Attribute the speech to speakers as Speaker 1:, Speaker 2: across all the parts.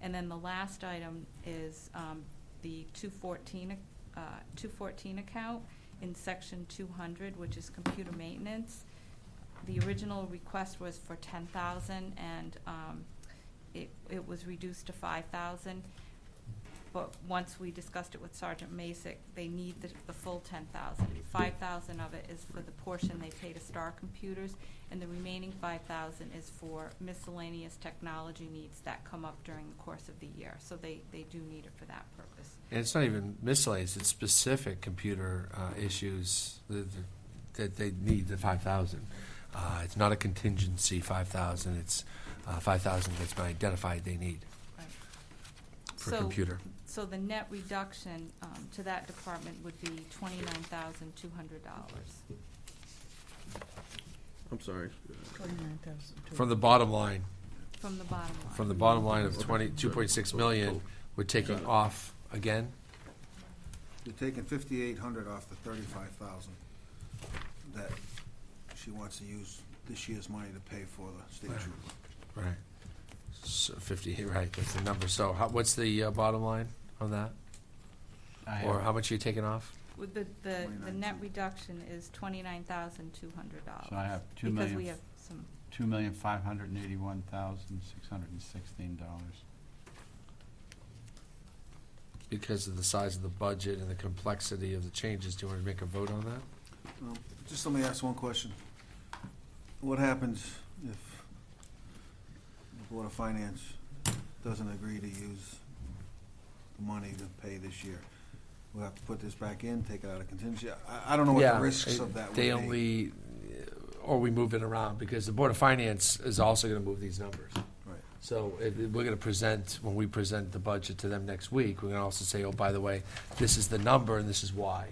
Speaker 1: And then the last item is um, the 214, uh, 214 account in section 200, which is computer maintenance. The original request was for 10,000 and um, it, it was reduced to 5,000. But once we discussed it with Sergeant Masick, they need the, the full ten thousand. Five thousand of it is for the portion they pay to Star Computers, and the remaining five thousand is for miscellaneous technology needs that come up during the course of the year. So they, they do need it for that purpose.
Speaker 2: And it's not even miscellaneous, it's specific computer uh, issues that that they need the 5,000. Uh, It's not a contingency 5,000, it's uh, 5,000 that's been identified they need
Speaker 1: Right.
Speaker 2: for
Speaker 1: So-
Speaker 2: computer.
Speaker 1: So the net reduction um, to that department would be twenty-nine thousand two hundred dollars.
Speaker 3: I'm sorry.
Speaker 2: From the bottom line,
Speaker 1: From the bottom line.
Speaker 2: from the bottom line of
Speaker 3: Okay.
Speaker 2: 20, 2.6 million, we're taking off again?
Speaker 4: You're taking fifty-eight hundred off the thirty-five thousand that she wants to use this year's money to pay for the state
Speaker 2: Right.
Speaker 4: trooper.
Speaker 2: Right. So 50, right, that's the number. So how- what's the uh, bottom line on that? Or how much are you taking off?
Speaker 1: With the, the, the
Speaker 4: 29,200.
Speaker 1: net reduction is twenty-nine thousand two hundred dollars.
Speaker 5: So I have two
Speaker 1: Because we
Speaker 5: million,
Speaker 1: have some,
Speaker 5: two million, five hundred and eighty-one thousand, six hundred and sixteen dollars.
Speaker 2: because of the size of the budget and the complexity of the changes, do you want to make a vote on that?
Speaker 4: Um, Just let me ask one question. What happens if the Board of Finance doesn't agree to use the money to pay this year? We'll have to put this back in, take it out of contingency. I, I don't know what the risks of that would be.
Speaker 2: They only, or we move it around, because the Board of Finance is also going to move these numbers.
Speaker 4: Right.
Speaker 2: So if, if we're going to present, when we present the budget to them next week, we're going to also say, oh, by the way, this is the number and this is why.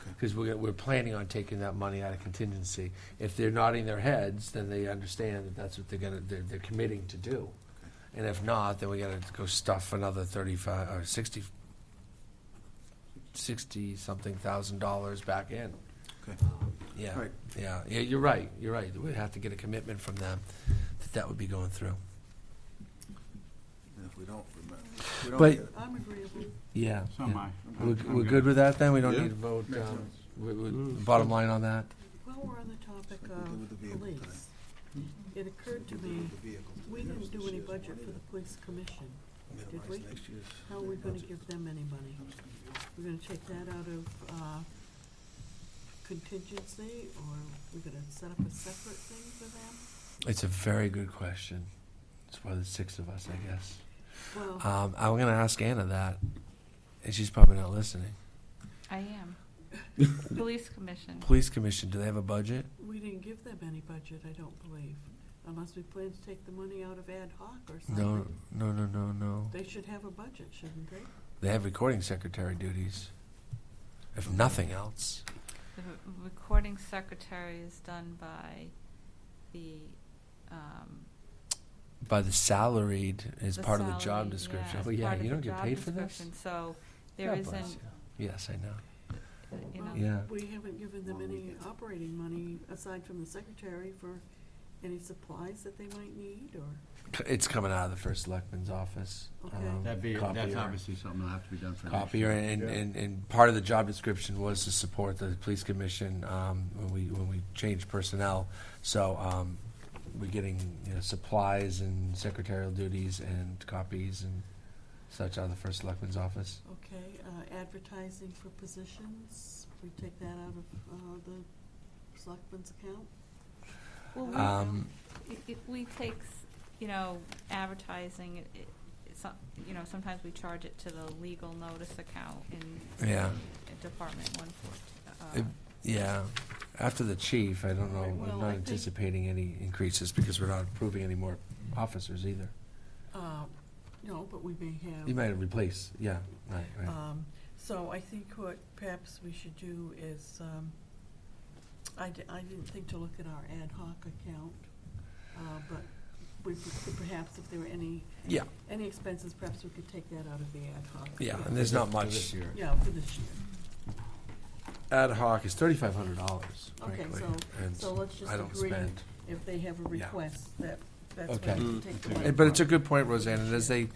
Speaker 4: Okay.
Speaker 2: Because we're, we're planning on taking that money out of contingency. If they're nodding their heads, then they understand that that's what they're going to, they're, they're committing to do. And if not, then we got to go stuff another thirty-five, or sixty, sixty-something thousand dollars back in.
Speaker 4: Okay.
Speaker 2: Yeah.
Speaker 4: Right.
Speaker 2: Yeah, yeah, you're right, you're right. We'd have to get a commitment from them that that would be going through.
Speaker 4: And if we don't, remember- we don't
Speaker 2: But-
Speaker 4: get it.
Speaker 6: I'm agreeable.
Speaker 2: Yeah.
Speaker 5: So am I.
Speaker 2: We're, we're good with that then? We don't
Speaker 3: Yeah.
Speaker 2: need to vote,
Speaker 4: Makes
Speaker 2: um,
Speaker 4: sense.
Speaker 2: we, we, bottom line on that?
Speaker 6: While we're on the topic
Speaker 4: Like we did with the
Speaker 6: of um,
Speaker 4: vehicle
Speaker 6: police, it occurred to me, we didn't do any budget for the police commission. Did we? How are we gonna give them any money? We're gonna take that out of, uh, contingency, or we're gonna set up a separate thing for them?
Speaker 2: It's a very good question. It's why there's six of us, I guess.
Speaker 6: Well,
Speaker 2: Um, I'm gonna ask Anna that, and she's probably not listening.
Speaker 1: I am. Police Commission.
Speaker 2: Police Commission, do they have a budget?
Speaker 6: we didn't give them any budget, I don't believe, unless we plan to take the money out of ad hoc or
Speaker 2: No,
Speaker 6: something.
Speaker 2: no, no, no, no.
Speaker 6: They should have a budget, shouldn't they?
Speaker 2: They have recording secretary duties, if nothing else.
Speaker 1: The re- recording secretary is done by the, um.
Speaker 2: By the salaried is part of the
Speaker 1: salary,
Speaker 2: job description.
Speaker 1: it's
Speaker 2: Oh, yeah,
Speaker 1: part of
Speaker 2: you
Speaker 1: the
Speaker 2: don't get
Speaker 1: job
Speaker 2: paid for this?
Speaker 1: description, So there
Speaker 2: God
Speaker 1: isn't,
Speaker 2: bless
Speaker 1: Um,
Speaker 2: you. Yes, I know.
Speaker 1: you know.
Speaker 6: Well,
Speaker 2: Yeah.
Speaker 6: We haven't given them
Speaker 4: Well, we
Speaker 6: any
Speaker 4: get-
Speaker 6: operating money aside from the secretary for any supplies that they might need or,
Speaker 2: C- It's coming out of the first selectman's office.
Speaker 6: Okay.
Speaker 2: um,
Speaker 5: That'd be, that's
Speaker 2: copier.
Speaker 5: obviously something that'll have to be done for next
Speaker 2: Copier,
Speaker 5: year.
Speaker 2: and, and, and part of the job description was to support the police commission, um, when we, when we changed personnel. So, um, we're getting, you know, supplies and secretarial duties and copies and such out of the first selectman's office.
Speaker 6: okay, uh, advertising for positions, we take that out of, uh, the selectmen's account?
Speaker 1: Well,
Speaker 6: Oh,
Speaker 1: we-
Speaker 2: Um,
Speaker 1: i- if we take, s- you know, advertising, it, it, it's not- you know, sometimes we charge it to the legal notice account in.
Speaker 2: Yeah.
Speaker 1: in Department one four, uh,
Speaker 2: It- Yeah, after the chief, I don't know,
Speaker 6: Well,
Speaker 2: I'm
Speaker 6: I
Speaker 2: not
Speaker 6: think-
Speaker 2: anticipating any increases because we're not approving any more officers either.
Speaker 6: Uh, no, but we may have.
Speaker 2: You might replace, yeah, right, right.
Speaker 6: Um, so I think what perhaps we should do is, um, I, di- I didn't think to look at our ad hoc account, uh, but we could perhaps if there were any,
Speaker 2: Yeah,
Speaker 6: any expenses, perhaps we could take that out of the ad hoc.
Speaker 2: yeah, and there's not
Speaker 5: For
Speaker 2: much.
Speaker 5: this year.
Speaker 6: Yeah, for this year.
Speaker 2: Ad hoc is thirty-five hundred dollars,
Speaker 6: Okay,
Speaker 2: frankly.
Speaker 6: so-
Speaker 2: and
Speaker 6: so let's just
Speaker 2: I don't
Speaker 6: agree.
Speaker 2: spend.
Speaker 6: If they have a
Speaker 2: Yeah.
Speaker 6: request, that, that's
Speaker 2: Okay.
Speaker 6: when we take the
Speaker 5: Mm.
Speaker 6: money.
Speaker 2: Eh, But it's a good point, Roseanne, and as they